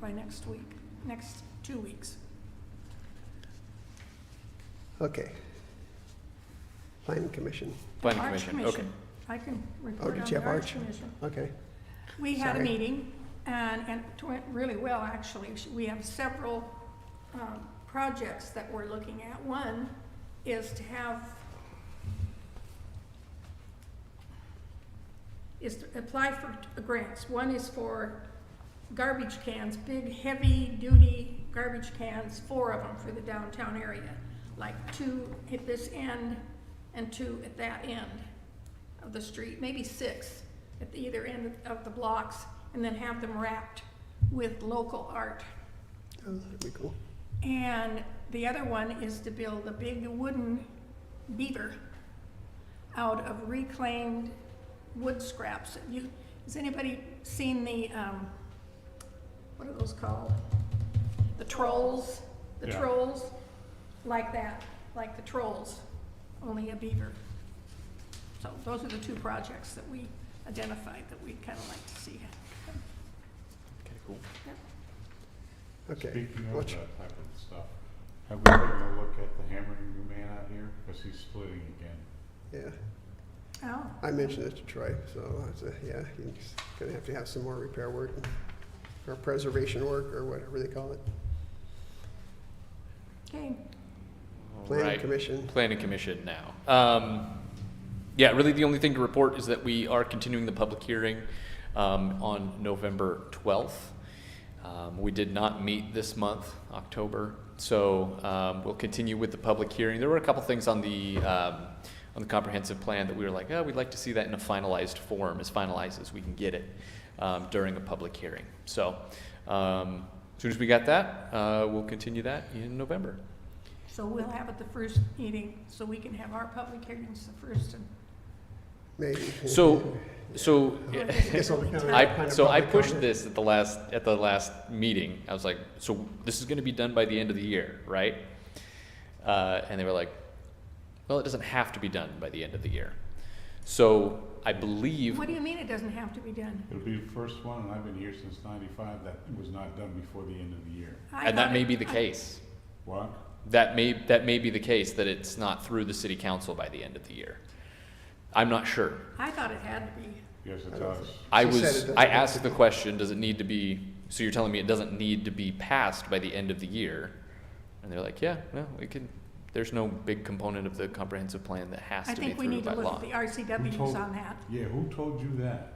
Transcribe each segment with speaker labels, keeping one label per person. Speaker 1: by next week, next two weeks.
Speaker 2: Okay. Planning Commission,
Speaker 3: Planning
Speaker 1: Arch
Speaker 3: Commission, okay.
Speaker 1: I can report
Speaker 2: Oh, did
Speaker 1: on
Speaker 2: you
Speaker 1: the
Speaker 2: have
Speaker 1: Arch
Speaker 2: Arch?
Speaker 1: Commission.
Speaker 2: okay.
Speaker 1: We had a
Speaker 2: Sorry.
Speaker 1: meeting, and, and it went really well, actually. We have several um, projects that we're looking at. One is to have, is to apply for t- grants. One is for garbage cans, big, heavy-duty garbage cans, four of them for the downtown area, like two at this end and two at that end of the street, maybe six at the either end of the blocks, and then have them wrapped with local art.
Speaker 2: Oh, that'd be cool.
Speaker 1: And the other one is to build a big wooden beaver out of reclaimed wood scraps. Have You, has anybody seen the, um, what are those called? The trolls, the
Speaker 4: Yeah.
Speaker 1: trolls, like that, like the trolls, only a beaver. So those are the two projects that we identified that we'd kind of like to see.
Speaker 3: Okay, cool.
Speaker 2: Okay.
Speaker 4: Speaking of uh,
Speaker 2: Watch-
Speaker 4: that type of stuff, have we taken a look at the hammering man out here? Because he's splitting again.
Speaker 2: Yeah,
Speaker 1: Oh,
Speaker 2: I mentioned it to Troy, so I said, yeah, he's gonna have to have some more repair work or preservation work or whatever they call it.
Speaker 1: okay.
Speaker 2: Planning
Speaker 3: Right.
Speaker 2: Commission,
Speaker 3: Planning Commission now. Um, yeah, really the only thing to report is that we are continuing the public hearing um, on November 12th. Um, we did not meet this month, October, so um, we'll continue with the public hearing. There were a couple things on the um, on the comprehensive plan that we were like, oh, we'd like to see that in a finalized form, as finalized as we can get it um, during a public hearing. So, um, as soon as we got that, uh, we'll continue that in November.
Speaker 1: So we'll have it the first meeting, so we can have our public hearings the first and.
Speaker 2: maybe.
Speaker 3: So, so
Speaker 2: guess I'll-
Speaker 3: I, so I
Speaker 2: Public
Speaker 3: pushed
Speaker 2: comment.
Speaker 3: this at the last, at the last meeting. I was like, so this is gonna be done by the end of the year, right? Uh, and they were like, well, it doesn't have to be done by the end of the year. So I believe,
Speaker 1: What do you mean it doesn't have to be done?
Speaker 4: It'll be the first one, and I've been here since ninety-five, that was not done before the end of the year.
Speaker 1: I
Speaker 3: and that
Speaker 1: thought
Speaker 3: may
Speaker 1: it-
Speaker 3: be the
Speaker 1: I-
Speaker 3: case.
Speaker 4: What?
Speaker 3: That may, that may be the case, that it's not through the city council by the end of the year. I'm not sure.
Speaker 1: I thought it had to be.
Speaker 4: Yes,
Speaker 2: I
Speaker 4: it
Speaker 2: don't
Speaker 4: does.
Speaker 3: I
Speaker 2: She said it
Speaker 3: was,
Speaker 2: doesn't
Speaker 3: I
Speaker 2: have to
Speaker 3: asked the
Speaker 2: be.
Speaker 3: question, does it need to be, so you're telling me it doesn't need to be passed by the end of the year? And they're like, yeah, no, we can, there's no big component of the comprehensive plan that has
Speaker 1: I
Speaker 3: to be
Speaker 1: think we
Speaker 3: through
Speaker 1: need
Speaker 3: by
Speaker 1: to look
Speaker 3: law.
Speaker 1: at the
Speaker 4: Who
Speaker 1: RCWs
Speaker 4: told-
Speaker 1: on that.
Speaker 4: Yeah, who told you that?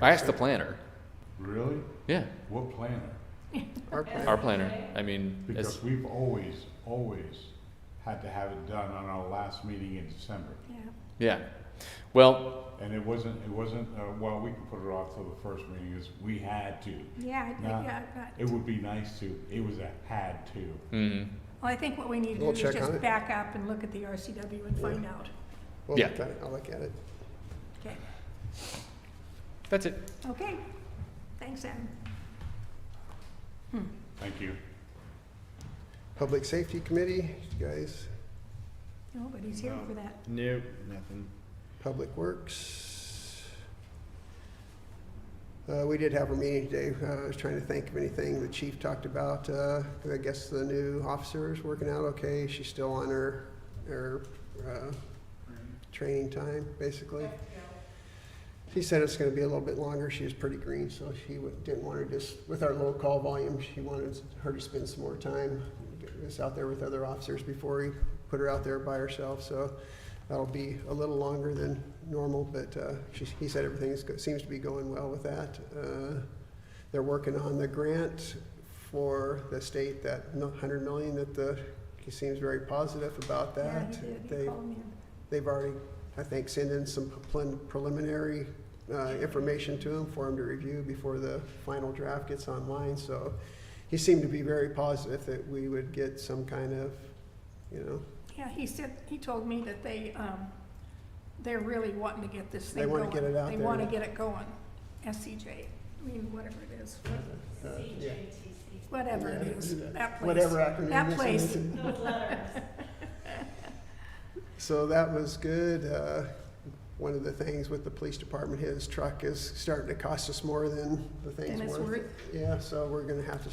Speaker 3: I asked the planner,
Speaker 4: Really?
Speaker 3: yeah,
Speaker 4: What planner?
Speaker 2: Our plan-
Speaker 3: our planner, I mean, it's,
Speaker 4: Because we've always, always had to have it done on our last meeting in December.
Speaker 1: Yeah,
Speaker 3: yeah. Well,
Speaker 4: And it wasn't, it wasn't, uh, well, we can put it off till the first meeting, is we had to.
Speaker 1: yeah, I think,
Speaker 4: Nah.
Speaker 1: yeah, but-
Speaker 4: It would be nice to, it was a had to.
Speaker 3: mm,
Speaker 1: well, I think what we need to do
Speaker 2: We'll
Speaker 1: is
Speaker 2: check on
Speaker 1: just
Speaker 2: it.
Speaker 1: back up and look at the RCW and find out.
Speaker 2: We'll
Speaker 3: Yeah.
Speaker 2: look at it, I'll look at it.
Speaker 1: Okay,
Speaker 3: that's it.
Speaker 1: okay, thanks, Adam.
Speaker 4: Thank you.
Speaker 2: Public Safety Committee, you guys,
Speaker 1: Nobody's here for that.
Speaker 5: Nope, nothing.
Speaker 2: Public Works. Uh, we did have a meeting today. Uh, I was trying to think of anything the chief talked about. Uh, 'cause I guess the new officer is working out okay. She's still on her, her, uh, training time, basically. She said it's gonna be a little bit longer. She was pretty green, so she wa- didn't want her just, with our low call volume, she wanted her to spend some more time. Get us out there with other officers before we put her out there by herself, so that'll be a little longer than normal, but, uh, she, he said everything is, go- seems to be going well with that. Uh, They're working on the grant for the state, that mil- hundred million that the, he seems very positive about
Speaker 1: Yeah,
Speaker 2: that.
Speaker 1: he did, he
Speaker 2: They-
Speaker 1: called me.
Speaker 2: They've already, I think, sent in some prel- preliminary uh, information to him for him to review before the final draft gets online. So he seemed to be very positive that we would get some kind of, you know,
Speaker 1: Yeah, he said, he told me that they, um, they're really wanting to get this
Speaker 2: They
Speaker 1: thing going.
Speaker 2: wanna get it out
Speaker 1: They
Speaker 2: there,
Speaker 1: wanna
Speaker 2: yeah.
Speaker 1: get it going, SCJ, I mean, whatever it is,
Speaker 2: uh, yeah,
Speaker 1: whatever it
Speaker 2: Yeah,
Speaker 1: is, that place.
Speaker 2: whatever acronym.
Speaker 1: That
Speaker 2: this
Speaker 1: place.
Speaker 2: is. So that was good. Uh, One of the things with the police department, his truck is starting to cost us more than the thing's
Speaker 1: Than it's
Speaker 2: worth. Yeah, so we're gonna have to